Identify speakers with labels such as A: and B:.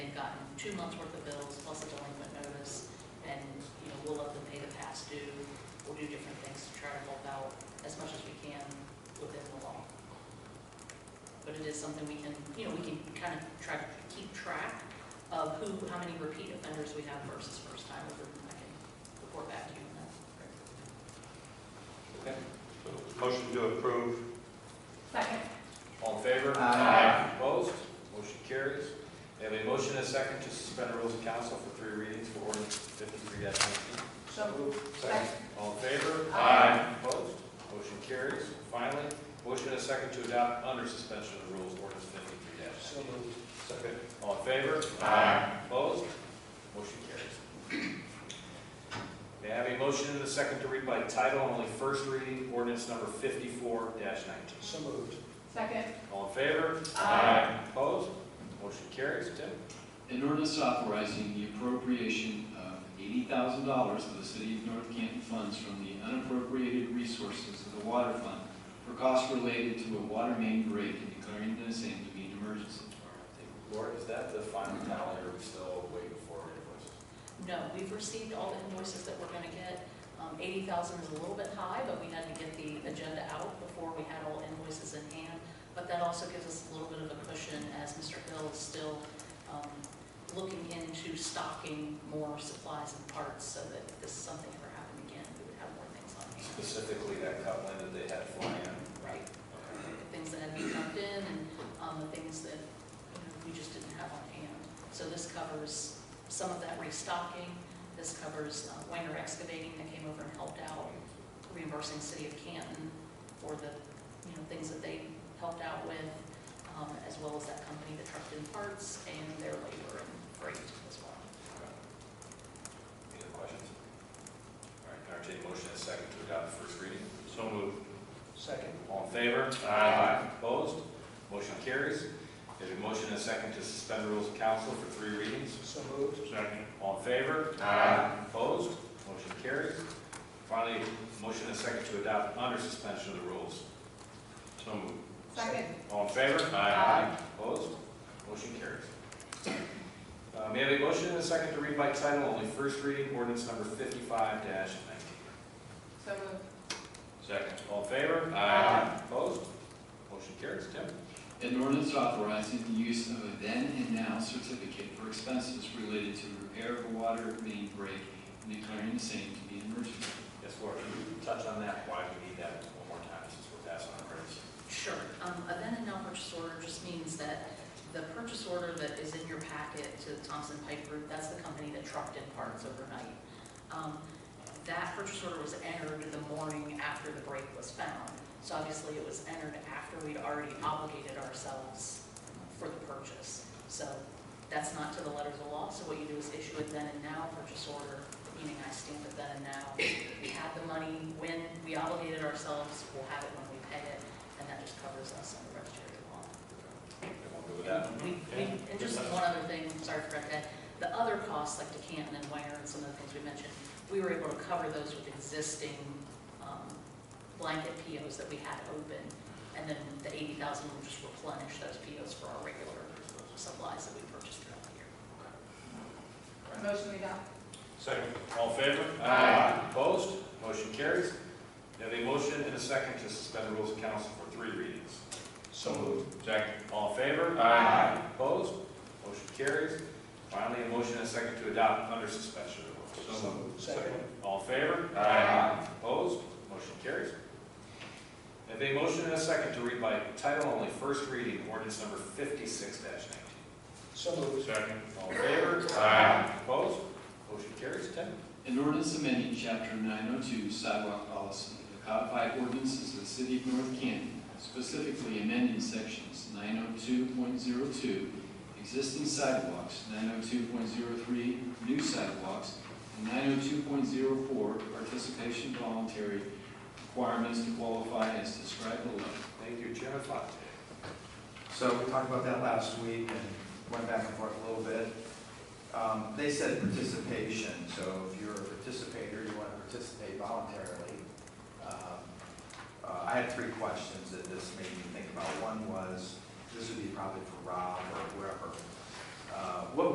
A: two months' worth of bills plus a delinquent notice, and, you know, we'll let them pay the past due. We'll do different things to try to help out as much as we can within the law. But it is something we can, you know, we can kind of try to keep track of who, how many repeat offenders we have versus first time, and I can report back to you on that.
B: Okay.
C: So, Motion to approve.
D: Second.
B: All in favor?
E: Aye.
B: Opposed? Motion carries. We have a motion and a second to suspend the rules of council for three readings for ordinance fifty-three nineteen.
D: So moved. Second.
B: All in favor?
E: Aye.
B: Opposed? Motion carries. Finally, motion and a second to adopt under suspension of the rules ordinance fifty-three nineteen.
C: Second.
B: All in favor?
E: Aye.
B: Opposed? Motion carries. May I have a motion and a second to read by title only first reading ordinance number fifty-four nineteen?
E: So moved.
D: Second.
B: All in favor?
D: Aye.
B: Opposed? Motion carries. Tim?
F: An ordinance authorizing the appropriation of eighty thousand dollars of the city of North Canton funds from the unappropriated resources of the water fund for costs related to a water main break and declaring the same to be an emergency.
B: Lord, is that the final tally, or are we still waiting for invoices?
A: No, we've received all the invoices that we're gonna get. Um, eighty thousand is a little bit high, but we had to get the agenda out before we had all invoices in hand. But that also gives us a little bit of a cushion as Mr. Hill is still, um, looking into stocking more supplies and parts so that if this is something ever happened again, we would have more things on hand.
B: Specifically that Cutland that they had flying in?
A: Right, the things that had been dumped in and, um, the things that, you know, we just didn't have on hand. So this covers some of that restocking, this covers uh, Weiner Excavating that came over and helped out, reimbursing City of Canton for the, you know, things that they helped out with, um, as well as that company that trucked in parts and their labor and freight as well.
B: Any other questions? All right, entertain a motion and a second to adopt the first reading.
C: So moved.
E: Second.
B: All in favor? Aye. Opposed? Motion carries. There's a motion and a second to suspend the rules of council for three readings.
E: So moved.
C: Second.
B: All in favor?
E: Aye.
B: Opposed? Motion carries. Finally, motion and a second to adopt under suspension of the rules.
C: So moved.
D: Second.
B: All in favor?
D: Aye.
B: Opposed? Motion carries. Uh, May I have a motion and a second to read by title only, first reading, ordinance number fifty-five nineteen.
D: So moved.
C: Second.
B: All in favor?
D: Aye.
B: Opposed? Motion carries. Tim?
F: An ordinance authorizing the use of a then and now certificate for expenses related to repair of a water main break and declaring the same to be an emergency.
B: Yes, Laura, can you touch on that, why we need that one more time, since we're passing on emergency?
A: Sure, um, a then and now purchase order just means that the purchase order that is in your packet to Thompson Pipe Group, that's the company that trucked in parts overnight. Um, that purchase order was entered the morning after the break was found. So obviously it was entered after we'd already obligated ourselves for the purchase. So that's not to the letter of the law, so what you do is issue a then and now purchase order, meaning I stamp it then and now. We have the money when we obligated ourselves, we'll have it when we pay it, and that just covers us under registry of law.
B: Everyone good with that?
A: We, we, and just one other thing, sorry for that, the other costs like to Canton and Ware and some of the things we mentioned, we were able to cover those with existing, um, blanket POs that we had open. And then the eighty thousand will just replenish those POs for our regular supplies that we purchased throughout the year.
D: Motion we adopt.
B: Second. All in favor?
E: Aye.
B: Opposed? Motion carries. May I have a motion and a second to suspend the rules of council for three readings.
E: So moved.
B: Second. All in favor?
E: Aye.
B: Opposed? Motion carries. Finally, a motion and a second to adopt under suspension of the rules.
C: So moved.
E: Second.
B: All in favor?
E: Aye.
B: Opposed? Motion carries. May I Have a motion and a second to read by title only, first reading, ordinance number fifty-six nineteen.
E: So moved.
C: Second.
B: All in favor?
C: Aye.
B: Opposed? Motion carries. Tim?
F: An ordinance amending chapter nine oh two sidewalk policy, of the codified ordinances of the city of North Canton, specifically amending sections nine oh two point zero two, existing sidewalks, nine oh two point zero three, new sidewalks, and nine oh two point zero four, participation voluntary requirements to qualify as described below.
B: Thank you, Chairman Fontaine.
E: So we talked about that last week and went back and forth a little bit. Um, They said participation, so if you're a participator, you want to participate voluntarily. Um, uh, I had three questions that this made me think about. One was, this would be probably for Rob or whoever. Uh, What